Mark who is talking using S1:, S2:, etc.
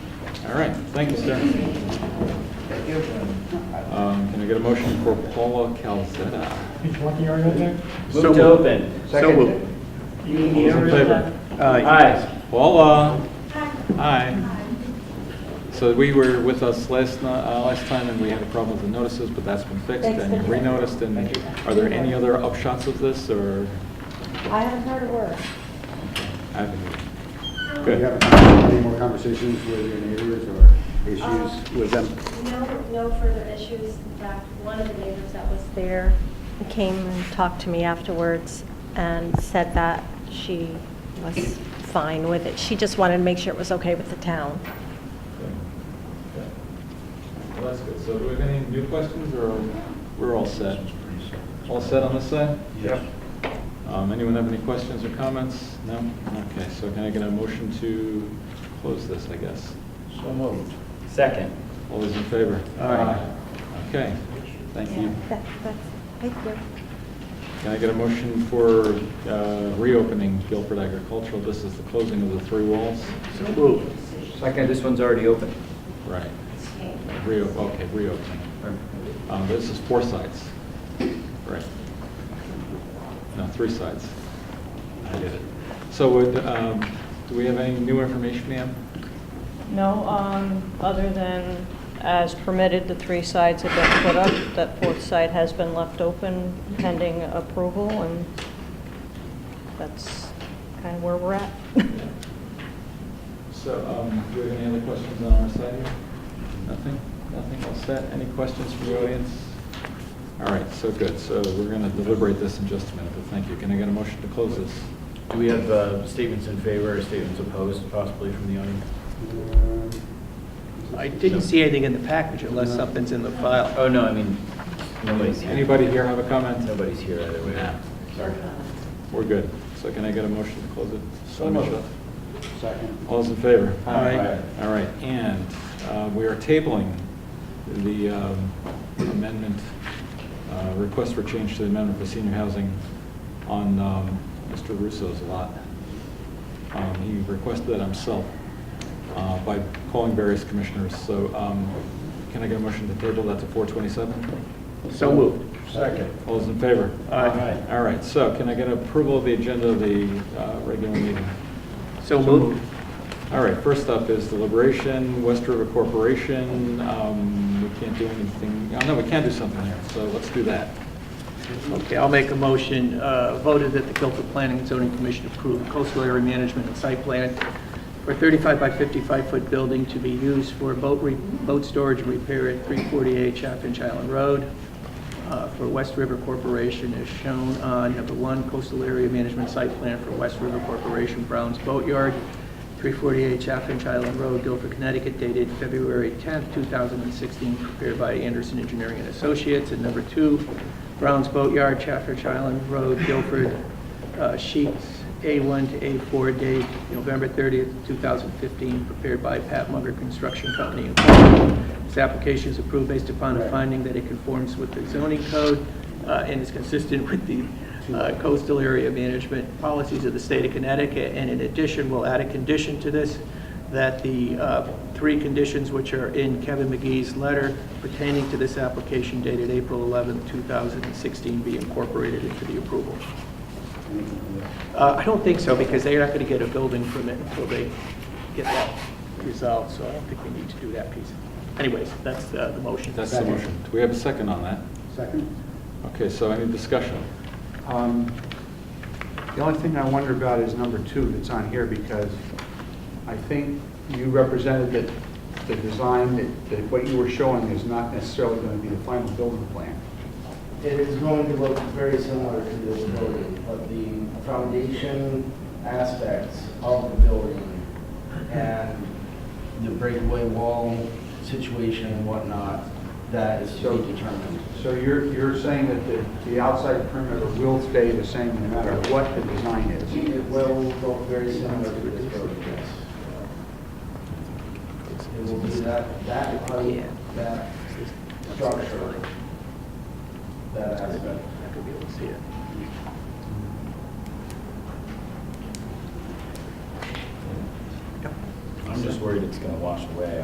S1: All right, thank you, sir. Um, Can I get a motion for Paula Calzada?
S2: He's walking already out there?
S3: Move to open.
S4: So moved.
S2: You need
S1: All those in favor?
S3: Aye.
S1: Paula? Hi. So we were with us last, ni- uh, last time, and we had a problem with the notices, but that's been fixed,
S5: Thanks
S1: and you
S5: for-
S1: renoticed, and are there any other upshots of this, or?
S5: I haven't heard a word.
S1: I haven't-
S4: Do you
S1: Good,
S4: have any more conversations with your neighbors or
S6: Um,
S4: issues with them?
S7: Um, No, no further issues. In fact, one of the neighbors that was there came and talked to me afterwards and said that she was fine with it. She just wanted to make sure it was okay with the town.
S1: well, that's good. So do we have any new questions, or we're all set? All set on this side?
S4: Yeah.
S1: Um, Anyone have any questions or comments? No? Okay, so can I get a motion to close this, I guess?
S4: So moved.
S3: Second.
S1: All those in favor? Aye. Okay, thank you.
S7: That- That's, thank you.
S1: Can I get a motion for uh, reopening Guilford Agricultural? This is the closing of the three walls?
S4: So moved.
S3: Second, this one's already open.
S1: Right. Reo, okay, reopening. Um, This is four sides. Right. No, three sides. I did it. So would, um, do we have any new information, ma'am?
S8: No, um, other than as permitted, the three sides have been put up. That fourth side has been left open pending approval, and that's kind of where we're at.
S1: So, um, do we have any other questions on our side here? Nothing? Nothing all set? Any questions from the audience? All right, so good. So we're going to deliberate this in just a minute, but thank you. Can I get a motion to close this?
S9: Do we have uh, statements in favor or statements opposed possibly from the audience?
S3: I didn't see anything in the package unless something's in the file.
S9: Oh, no, I mean, nobody's here.
S1: Anybody here have a comment?
S9: Nobody's here either way.
S1: Sorry. We're good. So can I get a motion to close it?
S4: So moved. Second.
S1: All those in favor?
S3: Aye.
S1: All right, and uh, we are tabling the um, amendment, uh, request for change to the amendment for senior housing on um, Mr. Russo's lot. Um, He requested that himself uh, by calling various commissioners, so um, can I get a motion to table that to 427?
S3: So moved.
S4: Second.
S1: All those in favor?
S3: Aye.
S1: All right, so can I get approval of the agenda of the uh, regular meeting?
S3: So moved.
S1: All right, first up is deliberation, West River Corporation. Um, We can't do anything, oh, no, we can do something here, so let's do that.
S10: Okay, I'll make a motion, uh, voted that the Guilford Planning and Zoning Commission approved coastal area management and site plan for 35 by 55-foot building to be used for boat, re- boat storage and repair at 348 Chaffinch Island Road uh, for West River Corporation as shown on number one, coastal area management site plan for West River Corporation Brown's Boatyard, 348 Chaffinch Island Road, Guilford, Connecticut, dated February 10th, 2016, prepared by Anderson Engineering and Associates. And number two, Brown's Boatyard, Chaffinch Island Road, Guilford, uh, sheets A1 to A4, date November 30th, 2015, prepared by Pat Munger Construction Company. Incorporated. This application is approved based upon a finding that it conforms with the zoning code uh, and is consistent with the uh, coastal area management policies of the state of Connecticut. And in addition, we'll add a condition to this, that the uh, three conditions which are in Kevin McGee's letter pertaining to this application dated April 11th, 2016, be incorporated into the approval. Uh, I don't think so, because they're not going to get a building permit until they get that resolved, so I don't think we need to do that piece. Anyways, that's uh, the motion.
S1: That's the motion. Do we have a second on that?
S4: Second?
S1: Okay, so any discussion?
S11: Um, The only thing I wonder about is number two that's on here, because I think you represented that the design, that- that what you were showing is not necessarily going to be the final building plan.
S6: It is going to look very similar to this building, but the foundation aspects of the building and the breakaway wall situation and whatnot, that is to be determined.
S11: So you're, you're saying that the, the outside perimeter will stay the same no matter what the design is?
S6: It will look very similar to this building, yes. It will be that, that height, that structure, that aspect.
S10: Not gonna be able to see it.
S9: I'm just worried it's going to wash away